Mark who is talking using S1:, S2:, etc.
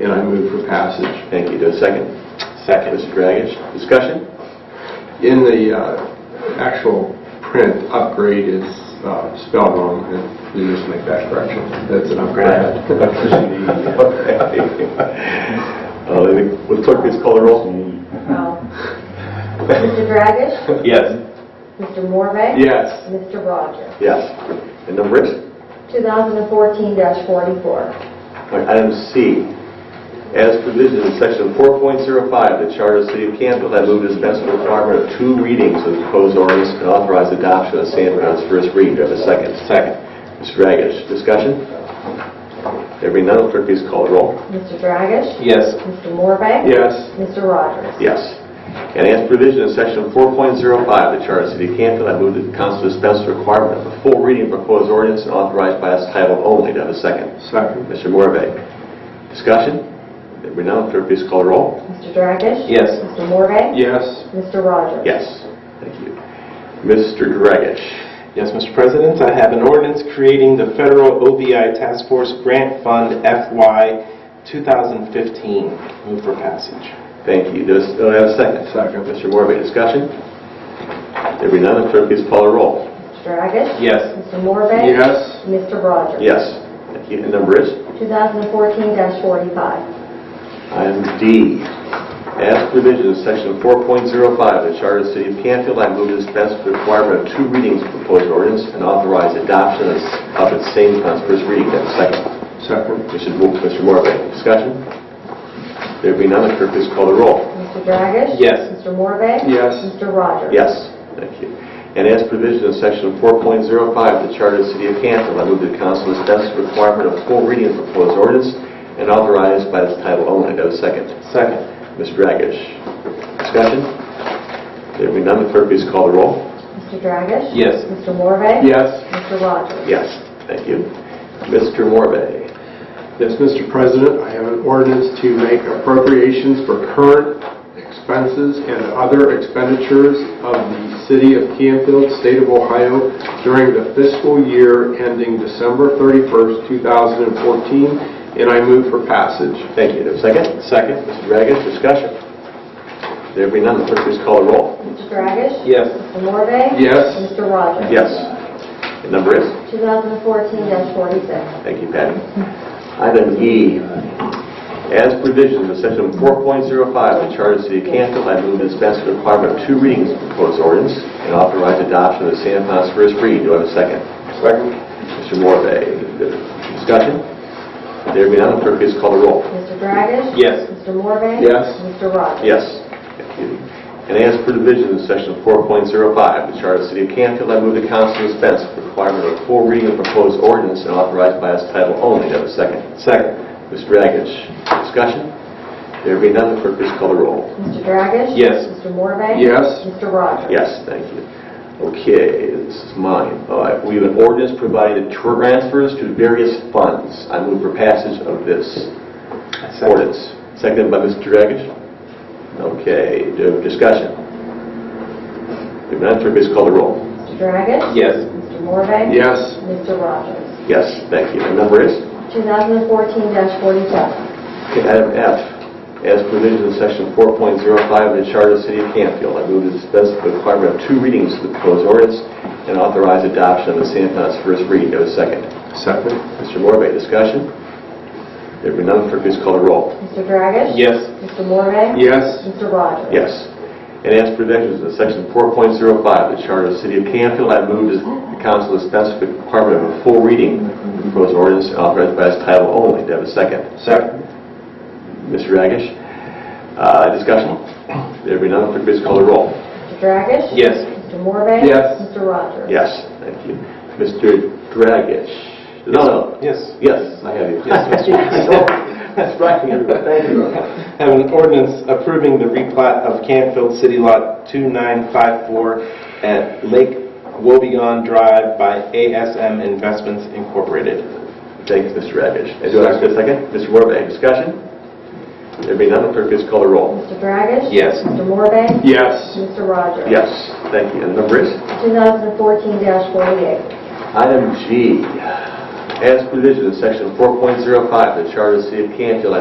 S1: and I move for passage.
S2: Thank you. Do a second?
S3: Second.
S2: Mr. Dragish, discussion?
S1: In the uh, actual print, upgrade is uh, spelled wrong, and we just make that correction. That's an upgrade.
S2: Uh, Would clerk please call the roll?
S4: Well, Mr. Dragish?
S2: Yes.
S4: Mr. Morve?
S2: Yes.
S4: Mr. Rogers?
S2: Yes. And number is?
S4: 2014-44.
S2: All right, Item C, as provisioned in section 4.05 of the Charter of the City of Canfield, I move to dispense with the requirement of two readings of the proposed ordinance and authorize adoption of the same on its first reading. Do I have a second? Second. Mr. Dragish, discussion? There being none, clerk, please call the roll.
S4: Mr. Dragish?
S3: Yes.
S4: Mr. Morve?
S1: Yes,
S4: Mr. Rogers?
S2: Yes. And as provision in section 4.05 of the Charter of the City of Canfield, I move that the council dispense with the requirement of a full reading of proposed ordinance and authorized by its title only. Do I have a second?
S1: second.
S2: Mr. Morvay, discussion? There being none, clerk, please call the roll.
S4: Mr. Dragish?
S3: Yes.
S4: Mr. Morve?
S1: Yes,
S4: Mr. Rogers?
S2: Yes, thank you. Mr. Dragish,
S3: Yes, Mr. President, I have an ordinance creating the Federal OBI Task Force Grant Fund FY 2015. Move for passage.
S2: thank you. Does, do I have a second?
S1: second.
S2: Mr. Morvay, discussion? There be none, clerk, please call the roll.
S4: Mr. Dragish?
S3: Yes.
S4: Mr. Morve?
S1: Yes,
S4: Mr. Rogers?
S2: Yes, thank you. And number is?
S4: 2014-45.
S2: Item D, as provision of section 4.05 of the Charter of the City of Canfield, I move to dispense with the requirement of two readings of proposed ordinance and authorize adoption of of its same on its first reading. Do I have a second?
S1: second.
S2: Mr. Mo- Mr. Morvay, discussion? There be none, clerk, please call the roll.
S4: Mr. Dragish?
S3: Yes.
S4: Mr. Morve?
S1: Yes,
S4: Mr. Rogers?
S2: Yes, thank you. And as provision in section 4.05 of the Charter of the City of Canfield, I move that council dispense with the requirement of full reading of proposed ordinance and authorize by its title only. Do I have a second?
S3: Second.
S2: Ms. Dragish. Discussion? There being none, the clerk please call the roll.
S4: Mr. Dragish?
S3: Yes.
S4: Mr. Morve?
S1: yes.
S4: Mr. Rogers?
S2: Yes, thank you. Mr. Morbe.
S1: Yes, Mr. President, I have an ordinance to make appropriations for current expenses and other expenditures of the City of Canfield, State of Ohio during the fiscal year ending December 31st, 2014, and I move for passage.
S2: Thank you. Do I have a Second?
S3: Second.
S2: Mr. Dragish, discussion? There being none, the clerk please call the roll.
S4: Mr. Dragish?
S3: Yes.
S4: Mr. Morve?
S1: Yes,
S4: Mr. Rogers?
S2: Yes. The number is?
S4: 2014-46.
S2: Thank you, Patty. Item E, as provisions of section 4.05 of the Charter of the City of Canfield, I move to dispense with the requirement of two readings of proposed ordinance and authorize adoption of the same upon its first reading. Do I have a second?
S1: second.
S2: Mr. Morvay, discussion? There being none, clerk, please call the roll.
S4: Mr. Dragish?
S3: Yes.
S4: Mr. Morve?
S1: Yes.
S4: Mr. Rogers?
S2: Yes. Thank you. And as per division in section 4.05 of the Charter of the City of Canfield, I move the council dispense with the requirement of a full reading of proposed ordinance and authorize by its title only. Do I have a second?
S3: Second.
S2: Mr. Dragish, discussion? There being none, clerk, please call the roll.
S4: Mr. Dragish?
S3: Yes.
S4: Mr. Morve?
S1: Yes,
S4: Mr. Rogers?
S2: Yes, thank you. Okay, this is mine. All right, we have an ordinance providing transfers to various funds. I move for passage of this ordinance. Seconded by Mr. Dragish? Okay, do we have discussion? If not, clerk, please call the roll.
S4: Mr. Dragish?
S3: Yes.
S4: Mr. Morve?
S1: yes,
S4: Mr. Rogers?
S2: Yes, thank you. The number is?
S4: 2014-47.
S2: Okay, Item F, as provision in section 4.05 of the Charter of the City of Canfield, I move to dispense with the requirement of two readings of the proposed ordinance and authorize adoption of the same upon its first reading. Do I have a second?
S1: second.
S2: Mr. Morbe, discussion? There being none, clerk, please call the roll.
S4: Mr. Dragish?
S3: Yes.
S4: Mr. Morve?
S1: Yes,
S4: Mr. Rogers?
S2: Yes. And as provisions in section 4.05 of the Charter of the City of Canfield, I move that the council dispense with the requirement of a full reading of the proposed ordinance and authorize by its title only. Do I have a second?
S1: second.
S2: Mr. Dragish. Uh, Discussion? There be none, clerk, please call the roll.
S4: Mr. Dragish?
S3: Yes.
S4: Mr. Morve?
S1: Yes.
S4: Mr. Rogers?
S2: Yes, thank you. Mr. Dragish? No, no,
S3: Yes.
S2: yes, I have you.
S3: Yes, Mr.
S2: That's right, everybody, thank you.
S3: Have an ordinance approving the replat of Canfield City Lot 2954 at Lake Wobegon Drive by ASM Investments Incorporated.
S2: Thanks, Mr. Dragish. And do I have a second? Mr. Morvay, discussion? There be none, clerk, please call the roll.
S4: Mr. Dragish?
S3: Yes.
S4: Mr. Morve?
S1: Yes,
S4: Mr. Rogers?
S2: Yes, thank you. And the number is?
S4: 2014-48.
S2: Item G, as provision in section 4.05 of the Charter of the City of Canfield, I